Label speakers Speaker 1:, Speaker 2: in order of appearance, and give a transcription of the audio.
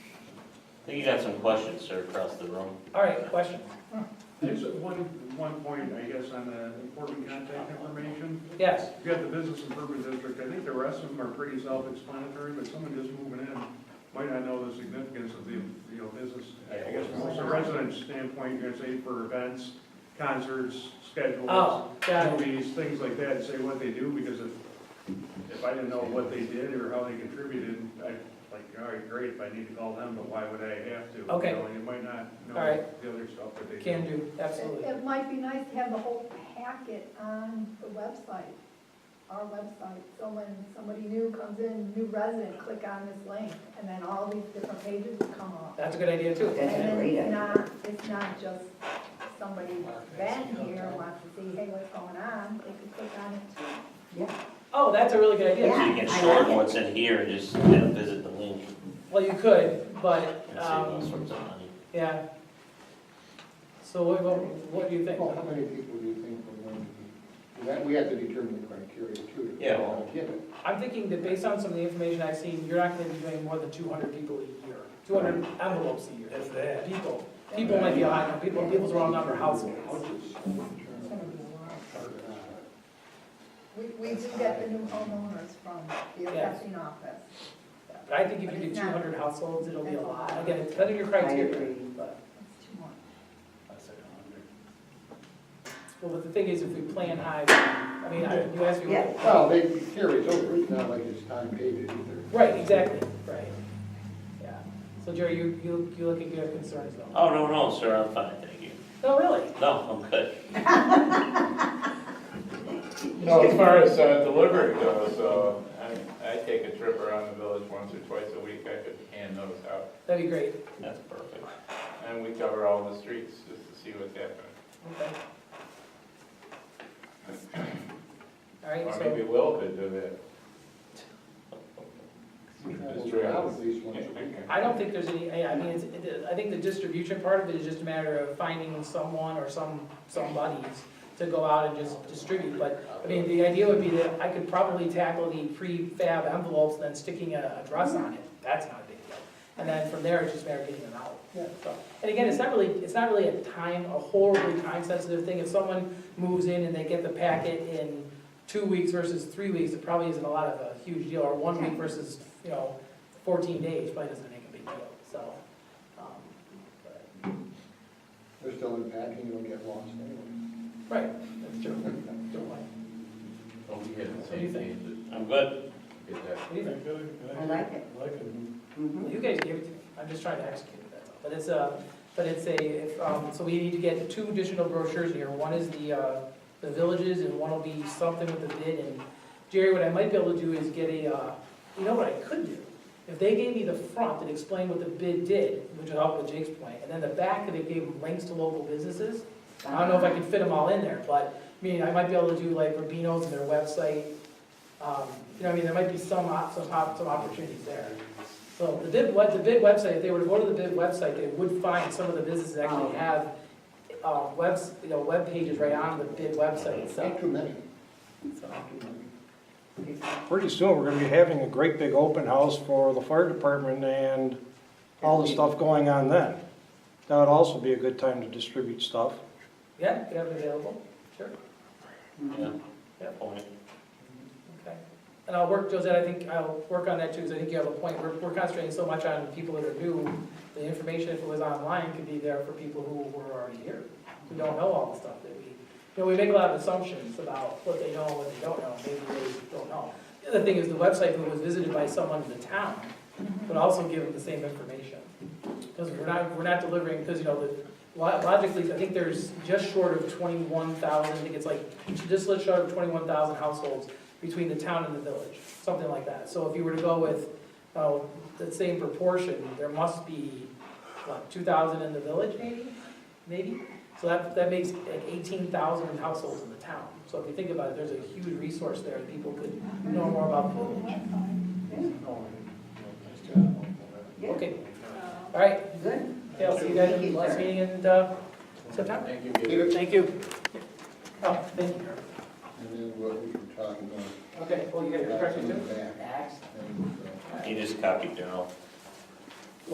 Speaker 1: I think you got some questions, sir, across the room.
Speaker 2: All right, questions?
Speaker 3: There's one, one point, I guess, on the important contact information.
Speaker 2: Yes,
Speaker 3: If you got the business improvement district, I think the rest of them are pretty self-explanatory, but someone just moving in might not know the significance of the, you know, business. I guess from a resident standpoint, you're gonna say for events, concerts, schedules,
Speaker 2: oh, got it,
Speaker 3: movies, things like that, and say what they do, because if, if I didn't know what they did or how they contributed, I'd like, all right, great, if I need to call them, but why would I have to?
Speaker 2: Okay.
Speaker 3: You know, You might not know
Speaker 2: All right.
Speaker 3: the other stuff that they do.
Speaker 2: can do,
Speaker 4: It
Speaker 2: absolutely.
Speaker 4: it might be nice to have the whole packet on the website, our website. So when somebody new comes in, new resident, click on this link, and then all these different pages will come up.
Speaker 2: That's a good idea too.
Speaker 5: That's a
Speaker 4: And
Speaker 5: great
Speaker 4: it's
Speaker 5: idea.
Speaker 4: not, it's not just somebody been here wants to see, hey, what's going on, they could click on it too.
Speaker 2: Oh, that's a really good idea.
Speaker 1: So you
Speaker 5: Yeah,
Speaker 1: can
Speaker 5: I
Speaker 1: shorten
Speaker 5: like it.
Speaker 1: what's in here and just you know, visit the link
Speaker 2: Well, you could, but,
Speaker 1: and save all
Speaker 2: um,
Speaker 1: sorts of money.
Speaker 2: yeah. So what, what- what do you think?
Speaker 6: Well, how many people do you think we're going to be, that, we have to determine the criteria too. to
Speaker 1: Yeah.
Speaker 6: all Get it.
Speaker 2: I'm thinking that based on some of the information I've seen, you're not gonna be doing more than two hundred people a year, two hundred envelopes a year. That's that. People, people might be a high number, people, people's the wrong number, households.
Speaker 6: Houses.
Speaker 4: It's gonna be a lot. We, we do get the new homeowners from the
Speaker 2: Yes.
Speaker 4: assessing office.
Speaker 2: But I think if you do two hundred households, it'll be a lot. Again, it's kind of your
Speaker 5: I
Speaker 2: criteria.
Speaker 5: agree.
Speaker 2: but-
Speaker 4: It's too much.
Speaker 2: Well, but the thing is, if we plan high, I mean, I- you asked me.
Speaker 5: Yeah.
Speaker 6: Well, they, it carries over, it's not like it's time dated either.
Speaker 2: Right, exactly, right. Yeah. So Jerry, you, you, you look like you have concerns though.
Speaker 1: Oh, no, no, sir, I'm fine, thank you.
Speaker 2: No, really?
Speaker 1: No, I'm good.
Speaker 7: No, as far as uh, delivery goes, uh, I, I take a trip around the village once or twice a week, I could hand those out.
Speaker 2: That'd be great.
Speaker 1: That's perfect.
Speaker 7: And we cover all the streets just to see what's happening.
Speaker 2: Okay. All right,
Speaker 7: Or maybe
Speaker 2: so,
Speaker 7: Will could do that.
Speaker 6: We travel
Speaker 7: That's right.
Speaker 6: around at least once a week.
Speaker 2: I don't think there's any, yeah, I mean, it's, it- I think the distribution part of it is just a matter of finding someone or some, some buddies to go out and just distribute, but, I mean, the idea would be that I could probably tackle the prefab envelopes, and then sticking a address on it, that's not a big deal. And then from there, it's just a matter of getting them out.
Speaker 6: Yeah.
Speaker 2: So, And again, it's not really, it's not really a time, a horribly time-sensitive thing. If someone moves in and they get the packet in two weeks versus three weeks, it probably isn't a lot of a huge deal, or one week versus, you know, fourteen days, probably doesn't make a big deal, so. um, but-
Speaker 6: They're still unpacking, you'll get lost anyway.
Speaker 2: Right, that's true. Don't mind.
Speaker 8: Oh, we had the
Speaker 2: What do you
Speaker 8: same
Speaker 2: think?
Speaker 8: thing,
Speaker 1: I'm good.
Speaker 8: that, get that
Speaker 2: What do you think?
Speaker 5: I like it.
Speaker 3: Like it.
Speaker 5: Mhm.
Speaker 2: You guys gave it to me, I'm just trying to execute that, but it's a, but it's a, if, um, so we need to get two additional brochures here. One is the, uh, the villages, and one will be something with the bid, and Jerry, what I might be able to do is get a, uh, you know what I could do? If they gave me the front that explained what the bid did, which would help with Jake's point, and then the back that it gave links to local businesses, I don't know if I can fit them all in there, but, I mean, I might be able to do like Rubino's and their website, um, you know, I mean, there might be some, op- some, op- some opportunities there. So the bid, what, the bid website, if they were to go to the bid website, they would find some of the businesses that actually
Speaker 5: Oh.
Speaker 2: have, uh, webs, you know, web pages right on the bid website
Speaker 6: Not
Speaker 2: itself,
Speaker 6: too many.
Speaker 2: so.
Speaker 9: Pretty soon, we're gonna be having a great big open house for the fire department and all the stuff going on then. That would also be a good time to distribute stuff.
Speaker 2: Yeah, could have it available, sure,
Speaker 1: Yeah, yeah, point.
Speaker 2: okay. And I'll work, Josette, I think I'll work on that too, because I think you have a point, we're, we're concentrating so much on people that are new, the information, if it was online, could be there for people who were already here, who don't know all the stuff that we, you know, we make a lot of assumptions about what they know and what they don't know, maybe they don't know. The other thing is the website who was visited by someone in the town, but also give them the same information. Because we're not, we're not delivering, because, you know, the, lo- logically, I think there's just short of twenty-one thousand, I think it's like, just short of twenty-one thousand households between the town and the village, something like that. So if you were to go with, uh, the same proportion, there must be, what, two thousand in the village maybe? Maybe? So that, that makes like eighteen thousand households in the town. So if you think about it, there's a huge resource there, that people could know more about the village.
Speaker 5: Yeah,
Speaker 2: Okay, all right,
Speaker 5: good.
Speaker 2: Okay, I'll see you guys
Speaker 5: Thank
Speaker 2: in
Speaker 5: you,
Speaker 2: the last
Speaker 5: sir.
Speaker 2: meeting in uh, September.
Speaker 8: Thank you.
Speaker 2: Thank you. Oh, thank you.
Speaker 6: And then what we were talking about.
Speaker 2: Okay, well, you got your
Speaker 6: that's
Speaker 2: correction
Speaker 6: in the
Speaker 2: too?
Speaker 6: back.
Speaker 5: Excellent.
Speaker 6: And, uh,
Speaker 1: You just copied Daryl.